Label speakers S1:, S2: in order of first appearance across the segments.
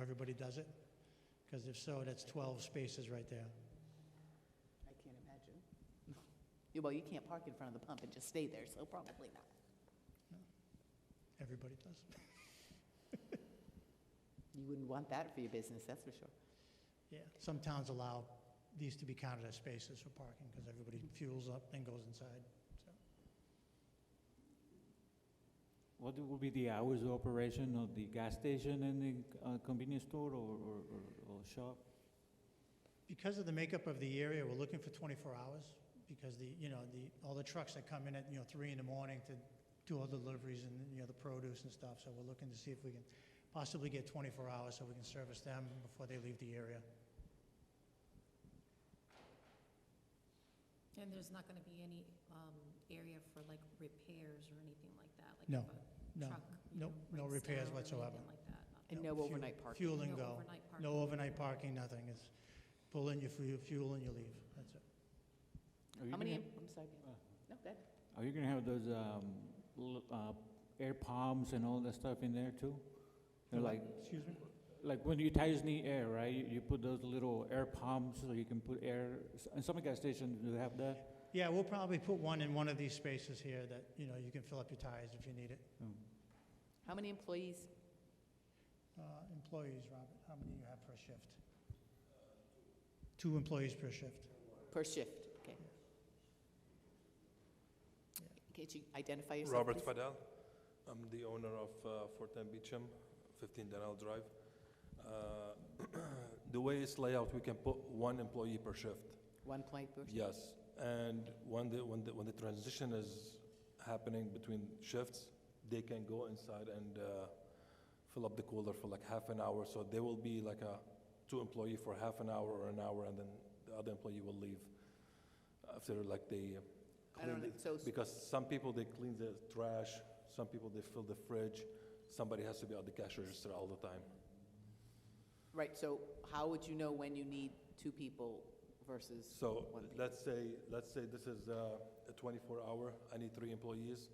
S1: everybody does it? Because if so, that's 12 spaces right there.
S2: I can't imagine. Yeah, Well, you can't park in front of the pump and just stay there, so probably not.
S1: Everybody does.
S2: You wouldn't want that for your business, that's for sure.
S1: Yeah, some towns allow these to be counted as spaces for parking because everybody fuels up and goes inside, so.
S3: What will be the hours of operation of the gas station and the uh, convenience store or, or, or- or shop?
S1: Because of the makeup of the area, we're looking for 24 hours because the, you know, the, all the trucks that come in at, you know, 3 in the morning to do all the deliveries and, you know, the produce and stuff. So we're looking to see if we can possibly get 24 hours so we can service them before they leave the area.
S4: And there's not going to be any um, area for like repairs or anything like that? like
S1: No,
S4: if a
S1: No,
S4: truck, you
S1: no,
S4: know,
S1: no
S4: breaks
S1: repairs
S4: down or
S1: whatsoever.
S4: anything like that? Nothing.
S2: And
S1: No,
S2: no
S1: fuel-
S2: overnight parking.
S1: Fuel and
S4: No
S1: go.
S4: overnight parking.
S1: No overnight parking, nothing. It's pull in, you fu- you fuel and you leave. That's it.
S3: Are you
S2: How many,
S3: gonna-
S2: em- I'm sorry, Bill.
S3: Uh.
S2: no, good.
S3: Are you gonna have those, um, l- uh, air pumps and all that stuff in there too?
S2: Mm-hmm.
S3: They're like,
S1: Excuse me?
S3: like when you ties the air, right, you, you put those little air pumps so you can put air, and some gas stations do have that?
S1: Yeah, we'll probably put one in one of these spaces here that, you know, you can fill up your tires if you need it.
S2: Mm.
S3: Oh.
S2: How many employees?
S1: Uh, Employees, Robert, how many you have per shift? Two employees per shift.
S2: Per shift, okay.
S1: Yeah.
S2: Could you identify yourself?
S5: Robert
S2: please?
S5: Fadel. I'm the owner of uh, Fort Dam Beecham, 15 Daniel Drive. Uh, The way it's laid out, we can put one employee per shift.
S2: One point per shift?
S5: Yes, and when the, when the, when the transition is happening between shifts, they can go inside and uh, fill up the cooler for like half an hour. So there will be like a two employee for half an hour or an hour, and then the other employee will leave after like they uh,
S2: I don't
S5: clean
S2: know,
S5: it.
S2: so,
S5: Because some people they clean the trash, some people they fill the fridge. Somebody has to be at the cash register all the time.
S2: right, so how would you know when you need two people versus?
S5: So
S2: One people.
S5: let's say, let's say this is uh, a 24-hour, I need three employees.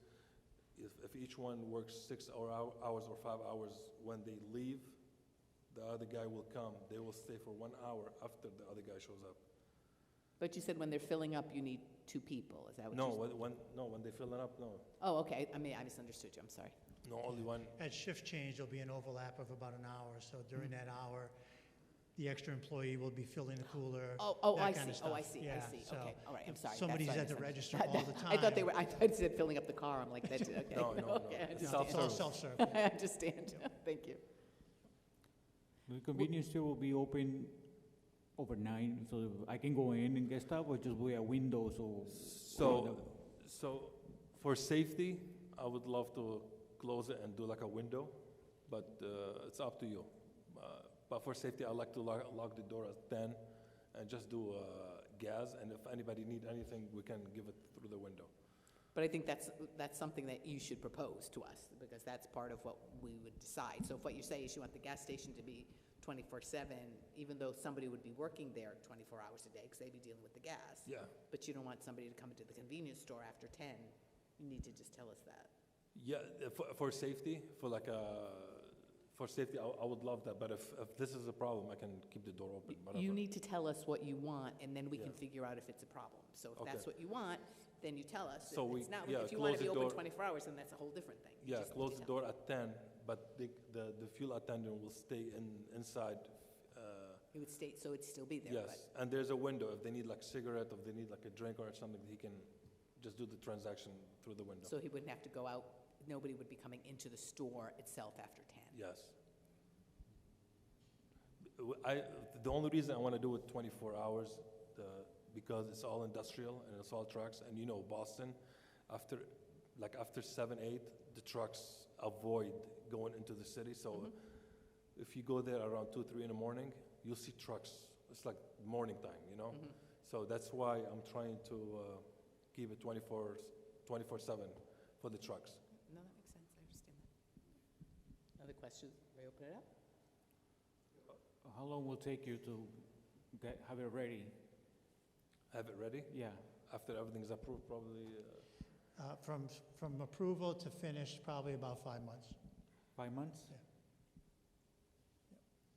S5: If, if each one works six hour hou- hours or five hours, when they leave, the other guy will come. They will stay for one hour after the other guy shows up.
S2: But you said when they're filling up, you need two people, is that what you
S5: No,
S2: said?
S5: when, when- no, when they fill it up, no.
S2: Oh, okay, I mean, I misunderstood you, I'm sorry.
S5: No, only one.
S1: At shift change, there'll be an overlap of about an hour, so during that hour, the extra employee will be filling the cooler.
S2: Oh, oh,
S1: that
S2: I
S1: kinda
S2: see, oh, I
S1: stuff.
S2: see, I
S1: Yeah,
S2: see,
S1: so
S2: okay, all right, I'm
S1: if
S2: sorry. that's
S1: Somebody's
S2: what I
S1: at the register
S2: misunderstood.
S1: all the time.
S2: I thought they were, I thought you said filling up the car, I'm like, that's, okay.
S5: No, no, no.
S2: Okay, I
S5: It's
S1: No, It's all
S2: understand.
S5: self-service.
S1: self-serve.
S2: I understand, thank you.
S3: The convenience store will be open overnight, so I can go in and get stuff, or just wear windows or?
S5: So, so for safety, I would love to close it and do like a window, but uh, it's up to you. Uh, But for safety, I like to lock, lock the door at 10 and just do uh, gas, and if anybody need anything, we can give it through the window.
S2: But I think that's, that's something that you should propose to us, because that's part of what we would decide. So if what you say is you want the gas station to be twenty-four seven, even though somebody would be working there twenty-four hours a day, because they'd be dealing with the gas.
S5: Yeah.
S2: But you don't want somebody to come into the convenience store after ten, you need to just tell us that.
S5: Yeah, uh, for, for safety, for like a, for safety, I, I would love that, but if, if this is a problem, I can keep the door open, whatever.
S2: You need to tell us what you want, and then we can
S5: Yeah.
S2: figure out if it's a problem. So if
S5: Okay.
S2: that's what you want, then you tell us. If
S5: So we-
S2: it's not,
S5: yeah,
S2: if you want
S5: close
S2: to
S5: the
S2: be open
S5: door.
S2: twenty-four hours, then that's a whole different thing. You
S5: Yeah,
S2: just need to
S5: close the
S2: tell-
S5: door at 10, but the, the, the fuel attendant will stay in, inside, uh,
S2: It would state, so it'd still be there, but.
S5: Yes, and there's a window, if they need like cigarette, if they need like a drink or something, he can just do the transaction through the window.
S2: So he wouldn't have to go out, nobody would be coming into the store itself after 10?
S5: Yes. I, the only reason I want to do it 24 hours, the, because it's all industrial and it's all trucks, and you know, Boston, after, like after 7, 8, the trucks avoid going into the city,
S2: Mm-hmm.
S5: so if you go there around 2, 3 in the morning, you'll see trucks, it's like morning time, you know?
S2: Mm-hmm.
S5: So that's why I'm trying to uh, keep it 24, 24/7 for the trucks.
S2: No, that makes sense, I understand that. Other questions? May I open it up?
S3: How long will it take you to get, have it ready?
S5: Have it ready?
S3: Yeah.
S5: After everything's approved, probably, uh,
S1: Uh, From, from approval to finish, probably about five months.
S3: Five months?
S1: Yeah.